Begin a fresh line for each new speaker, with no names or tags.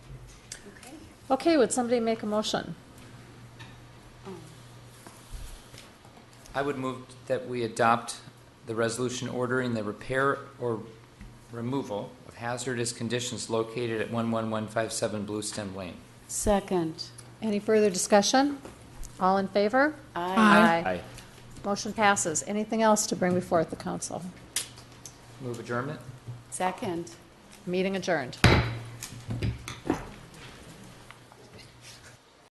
Okay, would somebody make a motion?
I would move that we adopt the resolution ordering the repair or removal of hazardous conditions located at 11157 Blue Stem Lane.
Second.
Any further discussion? All in favor?
Aye.
Motion passes. Anything else to bring before the council?
Move adjournment?
Second.
Meeting adjourned.